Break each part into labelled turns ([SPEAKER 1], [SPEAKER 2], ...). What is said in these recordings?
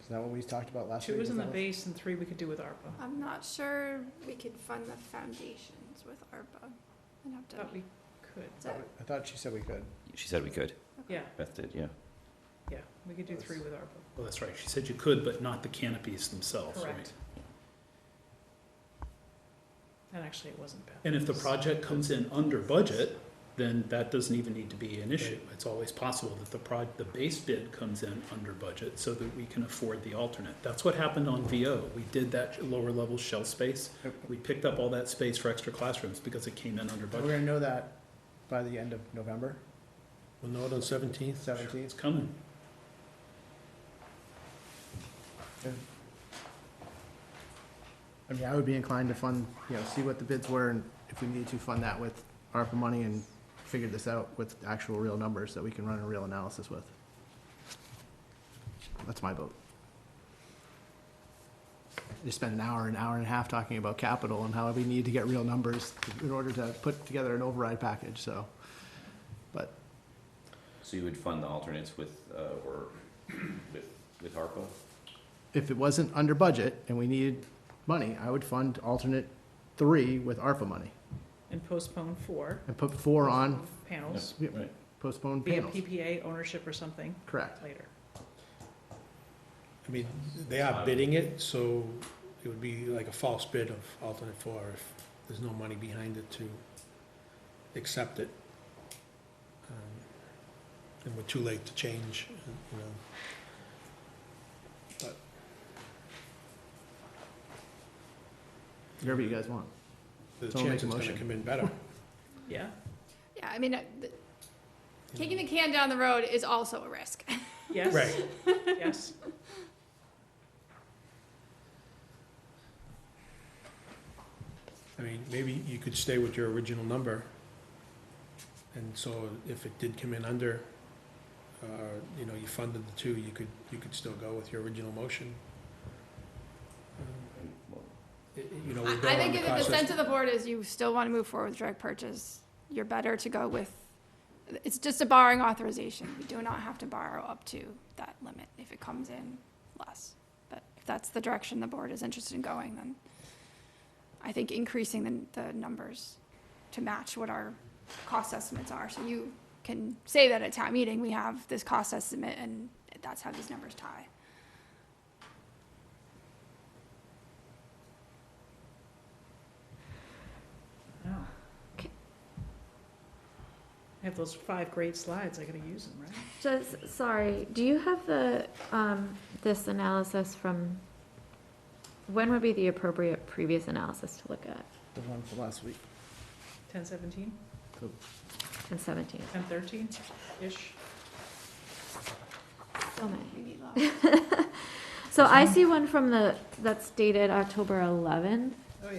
[SPEAKER 1] Is that what we talked about last week?
[SPEAKER 2] Two is in the
[SPEAKER 1] that what-
[SPEAKER 2] base and three we could do with ARPA.
[SPEAKER 3] I'm not sure we could fund the foundations with ARPA. I'd have to,
[SPEAKER 2] Thought we could,
[SPEAKER 3] is that-
[SPEAKER 1] I thought she said we could.
[SPEAKER 4] She said we could.
[SPEAKER 2] yeah,
[SPEAKER 4] Beth did, yeah.
[SPEAKER 2] yeah, we could do three with ARPA.
[SPEAKER 5] Well, that's right. She said you could, but not the canopies themselves, right?
[SPEAKER 2] Correct. And actually, it wasn't bad.
[SPEAKER 5] And if the project comes in under budget, then that doesn't even need to be an issue. It's always possible that the proj, the base bid comes in under budget so that we can afford the alternate. That's what happened on VO. We did that lower level shell space. We picked up all that space for extra classrooms because it came in under
[SPEAKER 1] We're
[SPEAKER 5] budget.
[SPEAKER 1] gonna know that by the end of November
[SPEAKER 6] We'll know it on seventeenth.
[SPEAKER 5] It's
[SPEAKER 1] seventeenth.
[SPEAKER 5] coming.
[SPEAKER 1] I mean, I would be inclined to fund, you know, see what the bids were and if we need to fund that with ARPA money and figure this out with actual real numbers that we can run a real analysis with. That's my vote. You spend an hour, an hour and a half talking about capital and how we need to get real numbers in order to put together an override package, so.
[SPEAKER 4] So you would fund the alternates with, uh, or with, with ARPA?
[SPEAKER 1] If it wasn't under budget and we needed money, I would fund alternate three with ARPA money
[SPEAKER 2] And postpone four.
[SPEAKER 1] and put four on
[SPEAKER 2] Panels,
[SPEAKER 1] Yeah.
[SPEAKER 4] Right.
[SPEAKER 1] postponed
[SPEAKER 2] via
[SPEAKER 1] panels,
[SPEAKER 2] PPA ownership or something
[SPEAKER 1] correct?
[SPEAKER 2] later.
[SPEAKER 6] I mean, they are bidding it, so it would be like a false bid of alternate four if there's no money behind it to accept it. Um, And we're too late to change, you know. But
[SPEAKER 1] Whatever you guys want.
[SPEAKER 6] the
[SPEAKER 1] Someone make
[SPEAKER 6] chance
[SPEAKER 1] a
[SPEAKER 6] it's gonna
[SPEAKER 1] motion.
[SPEAKER 6] come in better.
[SPEAKER 2] Yeah,
[SPEAKER 3] yeah, I mean, uh, th-
[SPEAKER 6] you
[SPEAKER 3] kicking
[SPEAKER 6] know.
[SPEAKER 3] the can down the road is also a risk.
[SPEAKER 2] yes.
[SPEAKER 6] Right.
[SPEAKER 2] Yes,
[SPEAKER 6] I mean, maybe you could stay with your original number. And so if it did come in under, uh, you know, you funded the two, you could, you could still go with your original motion. Um,
[SPEAKER 4] Well,
[SPEAKER 6] i- i- You know,
[SPEAKER 3] I
[SPEAKER 6] we're
[SPEAKER 3] I
[SPEAKER 6] going on
[SPEAKER 3] think
[SPEAKER 6] the
[SPEAKER 3] if the sense
[SPEAKER 6] process.
[SPEAKER 3] of the board is you still want to move forward with direct purchase, you're better to go with, it's just a borrowing authorization. We do not have to borrow up to that limit if it comes in less. But if that's the direction the board is interested in going, then I think increasing the, the numbers to match what our cost estimates are. So you can say that at town meeting, we have this cost estimate and that's how these numbers tie.
[SPEAKER 2] wow. I have those five great slides, I gotta use them, right?
[SPEAKER 7] Just, sorry, do you have the, um, this analysis from, when would be the appropriate previous analysis to look at
[SPEAKER 1] The one from last week.
[SPEAKER 2] Ten seventeen,
[SPEAKER 7] in seventeen?
[SPEAKER 2] ten thirteen-ish,
[SPEAKER 7] So many.
[SPEAKER 3] We need law.
[SPEAKER 7] So I see one from the, that's dated October eleventh,
[SPEAKER 2] oh yeah,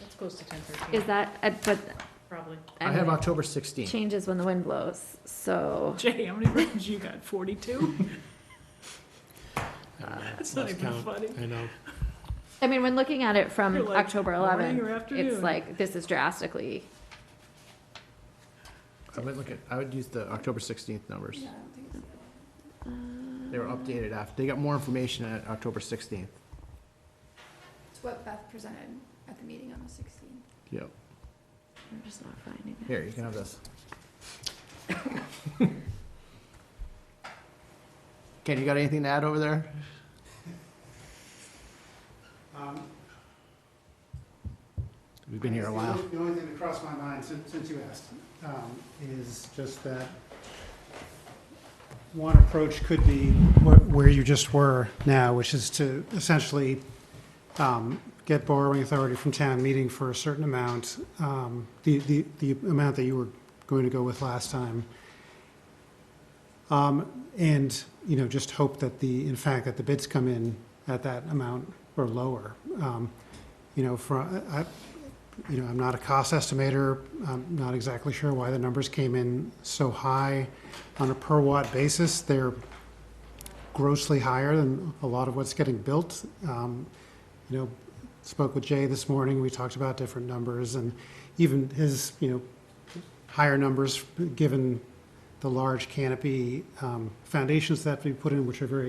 [SPEAKER 2] that's close to ten
[SPEAKER 7] is
[SPEAKER 2] thirteen,
[SPEAKER 7] that, uh, but.
[SPEAKER 2] probably.
[SPEAKER 1] I have
[SPEAKER 7] mean,
[SPEAKER 1] October sixteenth.
[SPEAKER 7] Changes when the wind blows, so,
[SPEAKER 2] Jay, how many versions you got, forty-two?
[SPEAKER 6] I don't know,
[SPEAKER 2] That's not
[SPEAKER 6] lost
[SPEAKER 2] even
[SPEAKER 6] count.
[SPEAKER 2] funny.
[SPEAKER 6] I know.
[SPEAKER 7] I mean, when looking at it
[SPEAKER 2] You're
[SPEAKER 7] from
[SPEAKER 2] like,
[SPEAKER 7] Um, October
[SPEAKER 2] morning or
[SPEAKER 7] eleventh, it's
[SPEAKER 2] afternoon?
[SPEAKER 7] like, this is drastically,
[SPEAKER 1] I would look at, I would use the October sixteenth numbers.
[SPEAKER 3] Yeah, I don't think it's-
[SPEAKER 1] They
[SPEAKER 7] um,
[SPEAKER 1] were updated after, they got more information at October sixteenth.
[SPEAKER 3] It's what Beth presented at the meeting on the sixteenth.
[SPEAKER 1] Yep.
[SPEAKER 7] I'm just not finding it.
[SPEAKER 1] Here, you can have this. Ken, you got anything to add over there?
[SPEAKER 8] Um,
[SPEAKER 1] We've been here a
[SPEAKER 8] the
[SPEAKER 1] while.
[SPEAKER 8] only- The only thing that crossed my mind since, since you asked, um, is just that one approach could be where, where you just were now, which is to essentially, um, get borrowing authority from town meeting for a certain amount, um, the, the, the amount that you were going to go with last time. Um, and, you know, just hope that the, in fact, that the bids come in at that amount or lower. Um, you know, for, I, I- you know, I'm not a cost estimator. I'm not exactly sure why the numbers came in so high on a per watt basis. They're grossly higher than a lot of what's getting built. Um, you know, spoke with Jay this morning. We talked about different numbers and even his, you know, higher numbers given the large canopy um, foundations that we put in, which are very